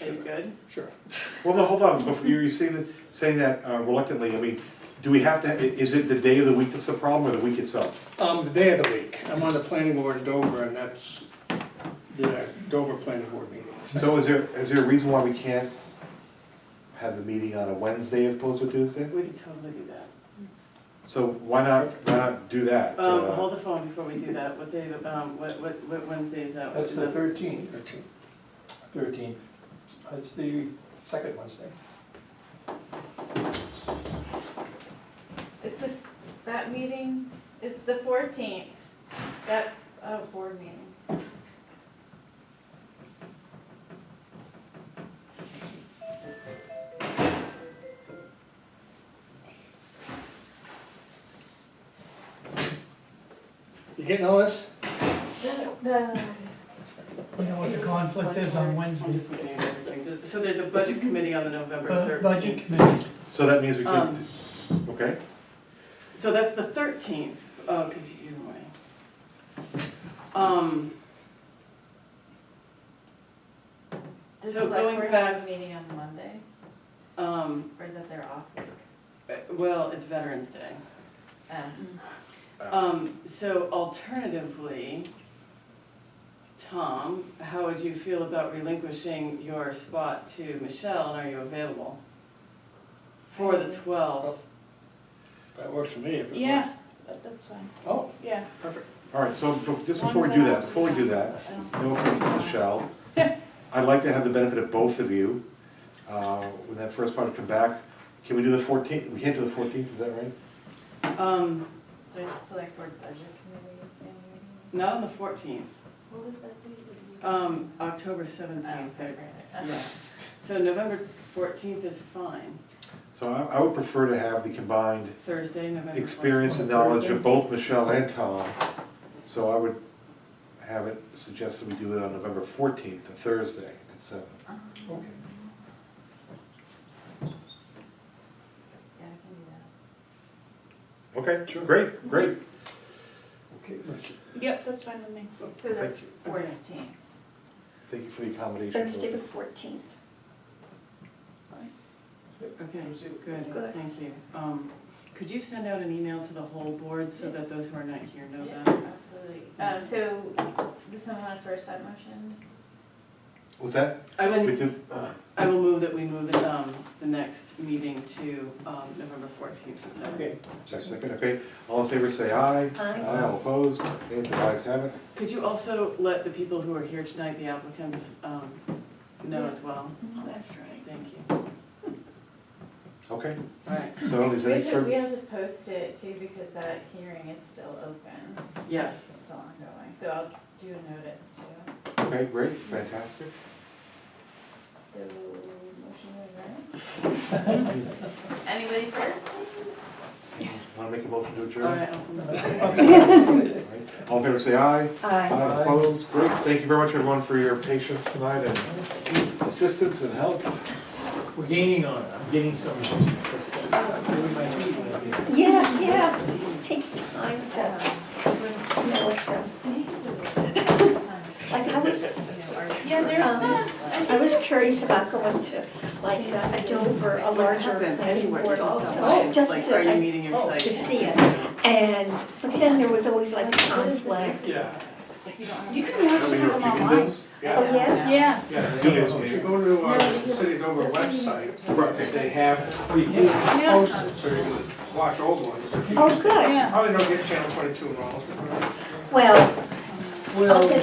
Are you good? Sure. Well, no, hold on, before, you're saying that, saying that uh, reluctantly, I mean, do we have to, i- is it the day of the week that's the problem, or the week itself? Um, the day of the week, I'm on the planning board in Dover, and that's the Dover planning board meeting. So is there, is there a reason why we can't have the meeting on a Wednesday as opposed to a Tuesday? We could totally do that. So why not, why not do that? Um, uh, hold the phone before we do that. What day, um, what, what, what Wednesday is that? That's the Is that- thirteenth, Thirteen. thirteenth. It's the second Wednesday. It's this, that meeting is the fourteenth, that, uh, board meeting. You getting all this? The, You know what the conflict is on I'm Wednesday, just looking at everything. Just- So there's a budget committee on the November Bu- thirteenth. budget committee, So that means we could, Um. okay, So that's the thirteenth, oh, because you're away. Um, does So the select going board have back- a meeting on Monday, um, or is that their off week? uh, well, it's Veterans Day. Uh, Um, so alternatively, Tom, how would you feel about relinquishing your spot to Michelle, and are you available? For the twelfth, That works for me if it works. Yeah, that- that's fine, Oh, yeah. perfect. all right, so be- just As long before we as do I that, don't- before we do that, I don't- no offense to Michelle, I'd like to have the benefit of both of you, uh, when that first part come back, can we do the fourteenth, we can't do the fourteenth, is that right? um, There's select board budget committee thing meeting. not on the fourteenth, What was that date? um, October Oh, seventeenth, February. yeah. So November fourteenth is fine, So I, I would prefer to have the combined Thursday, November fourteenth. experience and knowledge of both Michelle and Tom. So I would have it suggested we do it on November fourteenth, a Thursday at seven. Okay. Yeah, I can do that. Okay, great, great, Okay, Richard. Yep, that's fine with me. Oh, So the thank you, fourteenth, thank you for the accommodation. Thursday the fourteenth. Okay, good, Good. thank you. Um, could you send out an email to the whole board so that those who are not here know yeah, that? absolutely. Um, so, does someone want to first that motion? Was that, I we would, did, uh, I will move that we move the, um, the next meeting to, um, November fourteenth, so. Okay, just a second, okay, all in favor say aye. Aye. all opposed, okay, so the ayes have it. Could you also let the people who are here tonight, the applicants, um, know as well? Oh, That's right. Thank you. Okay, All right, so is We there any have to, we further, have to post it too, because that hearing is still open, yes. it's still ongoing, so I'll do a notice too. okay, great, fantastic. So, motion to adjourn? Anybody first? Want to make a motion to All adjourn? right, I'll send that. All right. All in favor say aye. Aye. Aye, opposed, great, thank you very much everyone for your patience tonight and assistance and help. we're gaining on it, I'm getting some. Maybe my heat might be- Yeah, yes, it takes time to, you know, to, like, I was, Yeah, there's Um, some. I was curious about going to, like, a Dover, a larger Haven't planning anywhere, board just also. Oh, not mine. just Like, to- are you meeting your oh, site? To see it, and, but then there was always like a conflict. Yeah, You can watch Have we heard chicken dinners? Oh, yeah? Yeah. yeah. Do this If you meeting. go to our City of Dover website, they have free meetings posted, so you can watch old ones. If you Oh, good. Probably don't get channel twenty-two and all. Well, Well, I'll just